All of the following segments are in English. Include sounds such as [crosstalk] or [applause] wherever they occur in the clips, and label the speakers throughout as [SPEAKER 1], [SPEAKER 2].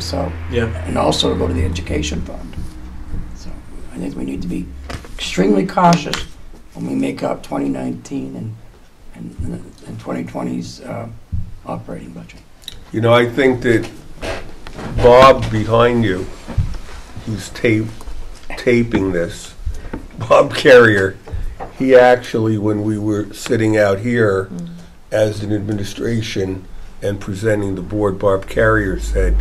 [SPEAKER 1] So,
[SPEAKER 2] Yeah.
[SPEAKER 1] and also to go to the education fund. So I think we need to be extremely cautious when we make up 2019 and, and and 2020's uh, operating budget.
[SPEAKER 3] You know, I think that Bob behind you, who's tape, taping this, Bob Carrier, he actually, when we were sitting out here as an administration and presenting the board, Bob Carrier said,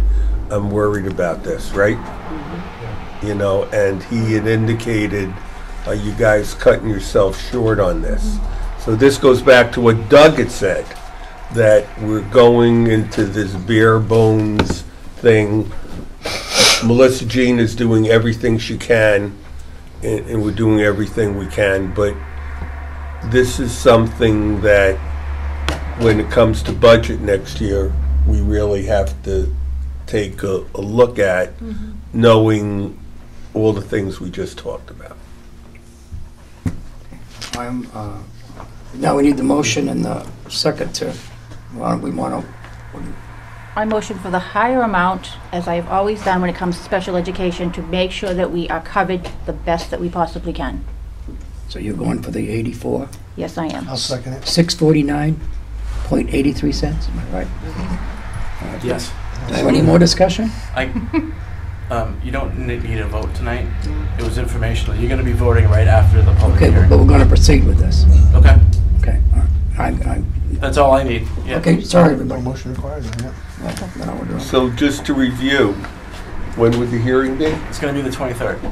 [SPEAKER 3] I'm worried about this, right? You know, and he had indicated, are you guys cutting yourself short on this? So this goes back to what Doug had said, that we're going into this bare bones thing. Melissa Jean is doing everything she can, and, and we're doing everything we can, but this is something that, when it comes to budget next year, we really have to take a, a look at, knowing all the things we just talked about.
[SPEAKER 1] I'm, uh, now we need the motion and the second to, why don't we want to,
[SPEAKER 4] I motion for the higher amount, as I've always done when it comes to special education, to make sure that we are covered the best that we possibly can.
[SPEAKER 1] so you're going for the 84?
[SPEAKER 4] Yes, I am.
[SPEAKER 5] I'll second it.
[SPEAKER 1] 649.83 cents, am I right?
[SPEAKER 2] Yes.
[SPEAKER 1] Do I have any more discussion? [laughs]
[SPEAKER 6] I, um, you don't ne- need a vote tonight. It was informational. You're gonna be voting right after the public
[SPEAKER 1] Okay, but
[SPEAKER 6] hearing.
[SPEAKER 1] we're going to proceed with this.
[SPEAKER 6] Okay,
[SPEAKER 1] Okay, all right. I'm, I'm,
[SPEAKER 6] that's all I need. Yeah.
[SPEAKER 1] okay, sorry,
[SPEAKER 5] No
[SPEAKER 1] everybody.
[SPEAKER 5] motion required, yeah.
[SPEAKER 1] Well, then I would, uh,
[SPEAKER 3] So just to review, when would the hearing be?
[SPEAKER 6] It's gonna be the 23rd,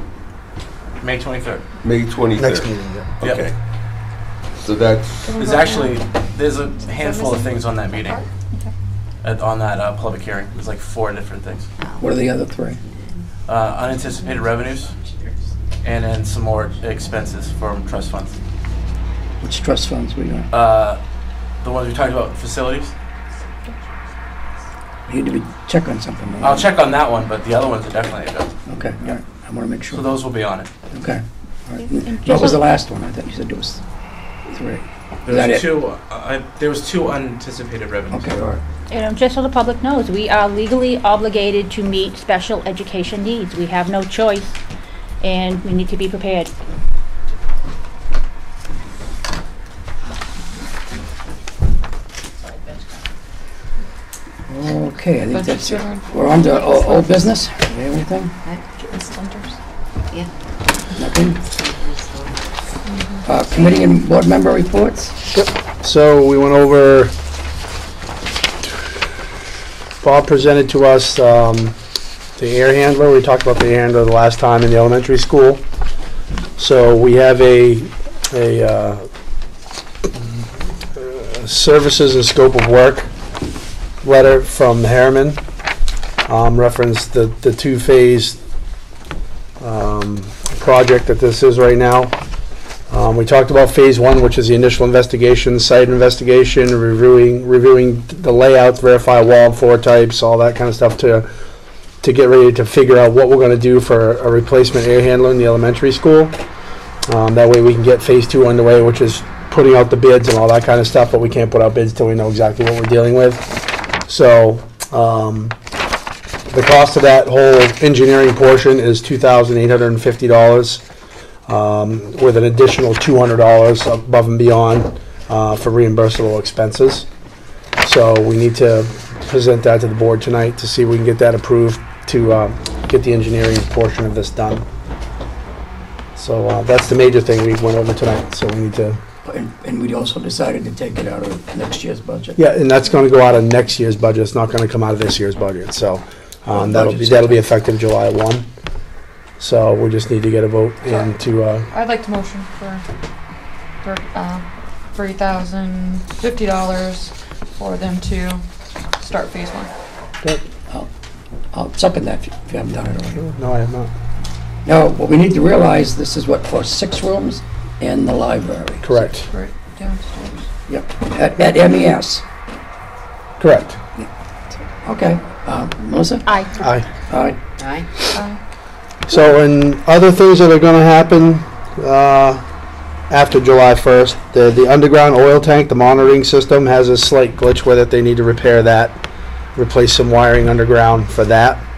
[SPEAKER 6] May 23rd.
[SPEAKER 3] May 23rd?
[SPEAKER 5] Next meeting, yeah.
[SPEAKER 6] Yep.
[SPEAKER 3] Okay. So that's,
[SPEAKER 6] There's actually, there's a handful of things on that meeting, at- on that uh, public hearing. There's like four different things.
[SPEAKER 1] What are the other three?
[SPEAKER 6] Uh, Unanticipated revenues, and then some more expenses from trust funds.
[SPEAKER 1] Which trust funds we gonna
[SPEAKER 6] Uh, The ones we talked about, facilities.
[SPEAKER 1] Need to be, check on something. right?
[SPEAKER 6] I'll check on that one, but the other ones are definitely addressed.
[SPEAKER 1] Okay, all right, I want to make
[SPEAKER 6] So
[SPEAKER 1] sure.
[SPEAKER 6] those will be on it.
[SPEAKER 1] Okay, all right.
[SPEAKER 4] And
[SPEAKER 1] What was
[SPEAKER 4] just-
[SPEAKER 1] the last one? I thought you said it was three. Is
[SPEAKER 6] There
[SPEAKER 1] that it?
[SPEAKER 6] was two, uh, I- there was two unanticipated revenues.
[SPEAKER 1] Okay, all right.
[SPEAKER 4] And um, just so the public knows, we are legally obligated to meet special education needs. We have no choice, and we need to be prepared.
[SPEAKER 1] Okay, I think
[SPEAKER 7] Bunch of
[SPEAKER 1] that's it.
[SPEAKER 7] children.
[SPEAKER 1] We're on to o- old business. Do we have anything? Nothing? Uh, Committee and board member reports?
[SPEAKER 5] So we went over, Bob presented to us um, the air handler. We talked about the air handler the last time in the elementary school. So we have a, a uh, uh, services and scope of work letter from Harriman, um, referenced the, the two-phase um, project that this is right now. Um, we talked about phase one, which is the initial investigation, site investigation, reviewing, reviewing the layout, verify wall and floor types, all that kind of stuff to, to get ready to figure out what we're gonna do for a replacement air handler in the elementary school. Um, that way we can get phase two underway, which is putting out the bids and all that kind of stuff, but we can't put out bids till we know exactly what we're dealing with. So, um, the cost of that whole engineering portion is two thousand eight hundred and fifty dollars um, with an additional two hundred dollars above and beyond uh, for reimbursable expenses. So we need to present that to the board tonight to see if we can get that approved to um, get the engineering portion of this done. So uh, that's the major thing we went over tonight, so we need to,
[SPEAKER 1] And and we also decided to take it out of next year's budget.
[SPEAKER 5] yeah, and that's gonna go out of next year's budget, it's not gonna come out of this year's budget, so um, that'll be, that'll be effective July one. So we just need to get a vote and to, uh,
[SPEAKER 7] I'd like to motion for, for, uh, three thousand fifty dollars for them to start phase one.
[SPEAKER 1] I'll second that if you if you haven't done it already.
[SPEAKER 5] no, I have not,
[SPEAKER 1] Now, what we need to realize, this is what, for six rooms and the library.
[SPEAKER 5] correct,
[SPEAKER 7] Right. Downstairs.
[SPEAKER 1] Yep, at E at MES.
[SPEAKER 5] correct,
[SPEAKER 1] Okay, Uh, Melissa?
[SPEAKER 4] Aye.
[SPEAKER 5] aye.
[SPEAKER 1] All right,
[SPEAKER 5] So, and other things that are going to happen uh, after July 1st, the, the underground oil tank, the monitoring system has a slight glitch with it. They need to repair that, replace some wiring underground for that.